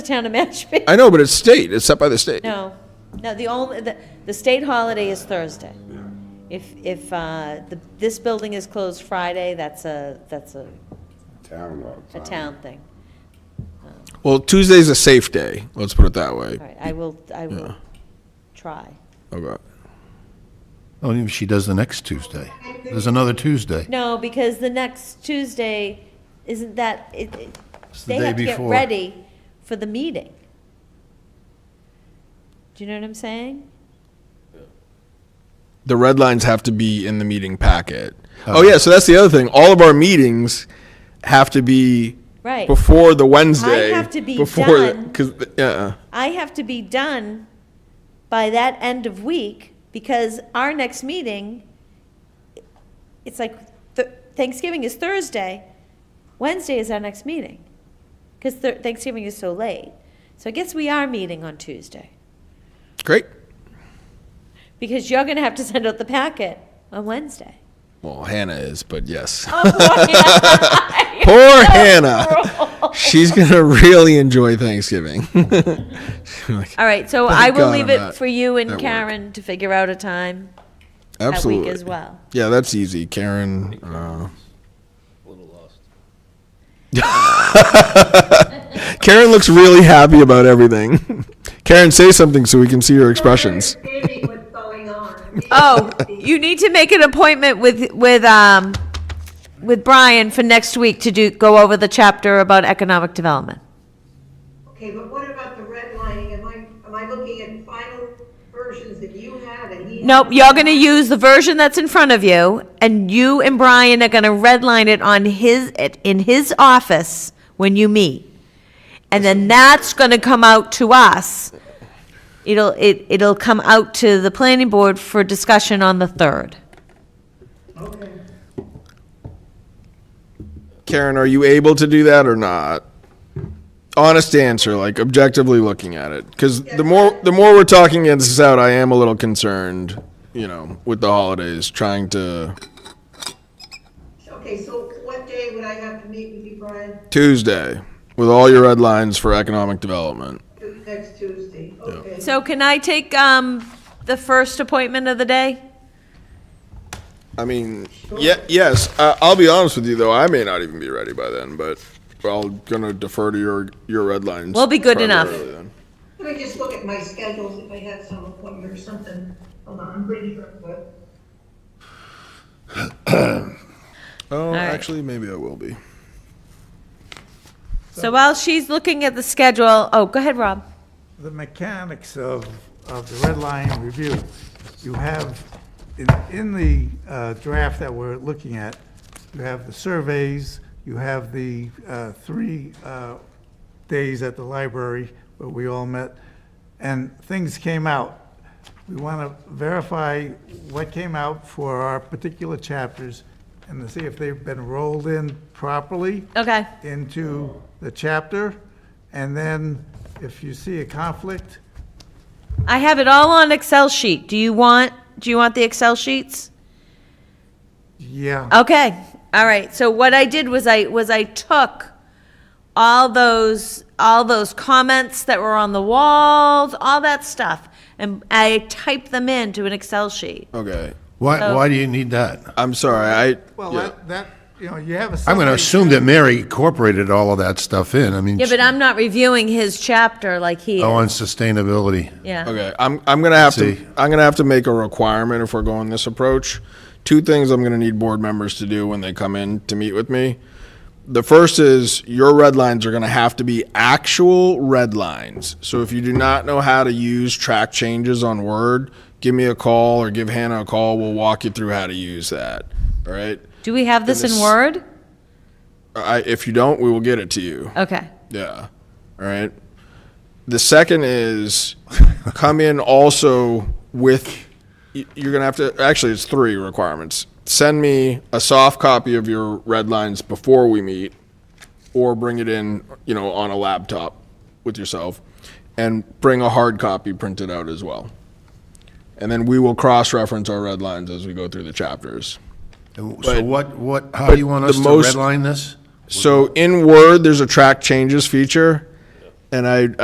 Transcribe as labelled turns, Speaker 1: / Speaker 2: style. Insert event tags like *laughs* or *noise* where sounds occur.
Speaker 1: the town of Mashpee.
Speaker 2: I know, but it's state. It's set by the state.
Speaker 1: No, no, the only, the, the state holiday is Thursday. If, if, uh, the, this building is closed Friday, that's a, that's a,
Speaker 3: Town law.
Speaker 1: a town thing.
Speaker 2: Well, Tuesday's a safe day. Let's put it that way.
Speaker 1: All right, I will, I will
Speaker 2: Yeah.
Speaker 1: try.
Speaker 2: Okay.
Speaker 4: Oh, yeah, she does the next Tuesday. There's another Tuesday.
Speaker 1: No, because the next Tuesday, isn't that, it, it-
Speaker 4: the
Speaker 1: they
Speaker 4: day
Speaker 1: have to get
Speaker 4: before.
Speaker 1: ready for the meeting. Do you know what I'm saying?
Speaker 2: The red lines have to be in the meeting packet. Oh yeah, so that's the other thing. All of our meetings have to be
Speaker 1: Right.
Speaker 2: before the Wednesday.
Speaker 1: have to be
Speaker 2: before
Speaker 1: done.
Speaker 2: because yeah.
Speaker 1: I have to be done by that end of week because our next meeting, it's like th- Thanksgiving is Thursday, Wednesday is our next meeting because th- Thanksgiving is so late. So I guess we are meeting on Tuesday
Speaker 2: Great.
Speaker 1: because you're going to have to send out the packet on
Speaker 2: *laughs*
Speaker 1: Wednesday. *laughs*
Speaker 2: Well, Hannah is, but yes.
Speaker 1: Oh, boy.
Speaker 2: *laughs*
Speaker 1: cruel. *laughs*
Speaker 2: Poor Hannah. She's gonna really enjoy Thanksgiving. *laughs* Like,
Speaker 1: All right, so
Speaker 2: Thank
Speaker 1: I will
Speaker 2: God
Speaker 1: leave
Speaker 2: I'm
Speaker 1: it
Speaker 2: not
Speaker 1: for you
Speaker 2: at
Speaker 1: and
Speaker 2: work.
Speaker 1: Karen to figure out a time that
Speaker 2: Absolutely.
Speaker 1: week as well.
Speaker 2: Yeah, that's easy, Karen. Uh, *laughs* Karen looks really happy about everything. *laughs* Karen, say something so we can see your expressions.
Speaker 5: Understanding what's going on.
Speaker 1: Oh, you need to make an appointment with, with, um, with Brian for next week to do, go over the chapter about economic development.
Speaker 5: Okay, but what about the redlining? Am I, am I looking at final versions that you have and he?
Speaker 1: Nope, you're gonna use the version that's in front of you, and you and Brian are gonna redline it on his, it- in his office when you meet. And then that's gonna come out to us. It'll, it, it'll come out to the planning board for discussion on the third.
Speaker 5: Okay.
Speaker 2: Karen, are you able to do that or not? Honest answer, like objectively looking at it, because the more the more we're talking this out, I am a little concerned. You know, with the holidays, trying to
Speaker 5: Okay, so what day would I have to meet with you, Brian?
Speaker 2: Tuesday with all your red lines for economic development.
Speaker 5: Tu- Next Tuesday, okay.
Speaker 1: So can I take, um, the first appointment of the day?
Speaker 2: I mean, yeah, yes. Uh, I'll be honest with you, though. I may not even be ready by then, but I'm gonna defer to your your red lines.
Speaker 1: We'll be good enough.
Speaker 2: primarily then.
Speaker 5: Let me just look at my schedules if I have some appointment or something. Hold on, I'm pretty sure, but.
Speaker 2: Oh,
Speaker 1: right.
Speaker 2: actually, maybe I will be.
Speaker 1: So while she's looking at the schedule, oh, go ahead, Rob.
Speaker 6: the mechanics of, of the red line review, you have, in, in the uh, draft that we're looking at, you have the surveys, you have the uh, three uh, days at the library where we all met, and things came out. We want to verify what came out for our particular chapters and to see if they've been rolled in properly
Speaker 1: Okay.
Speaker 6: into the chapter, and then if you see a conflict,
Speaker 1: I have it all on Excel sheet. Do you want, do you want the Excel sheets?
Speaker 6: yeah.
Speaker 4: Uh,
Speaker 1: Okay, all right. So what I did was I, was I took all those, all those comments that were on the walls, all that stuff, and I typed them into an Excel sheet.
Speaker 2: Okay,
Speaker 4: Why, why do you need that?
Speaker 2: I'm sorry. I
Speaker 6: Well,
Speaker 2: yeah.
Speaker 6: that, that, you know, you have a.
Speaker 4: I'm going to
Speaker 6: summary.
Speaker 4: assume that Mary incorporated all of that stuff in. I mean,
Speaker 1: Yeah, but I'm not reviewing his chapter like he
Speaker 4: oh,
Speaker 1: is.
Speaker 4: on sustainability.
Speaker 1: Yeah.
Speaker 2: Okay, I'm, I'm gonna have to,
Speaker 4: See.
Speaker 2: I'm gonna have to make a requirement if we're going this approach. Two things I'm gonna need board members to do when they come in to meet with me. The first is your red lines are gonna have to be actual red lines. So if you do not know how to use track changes on Word, give me a call or give Hannah a call. We'll walk you through how to use that, all right?
Speaker 1: Do we have this in
Speaker 2: Goodness.
Speaker 1: Word?
Speaker 2: I, if you don't, we will get it to you.
Speaker 1: Okay.
Speaker 2: Yeah. All right. The second is come in also with y- you're gonna have to actually it's three requirements. Send me a soft copy of your red lines before we meet, or bring it in, you know, on a laptop with yourself, and bring a hard copy printed out as well. And then we will cross-reference our red lines as we go through the chapters.
Speaker 4: So
Speaker 2: But-
Speaker 4: what, what, how
Speaker 2: but
Speaker 4: do you want
Speaker 2: the
Speaker 4: us to
Speaker 2: most-
Speaker 4: redline this?
Speaker 2: So in Word, there's a track changes feature. And I,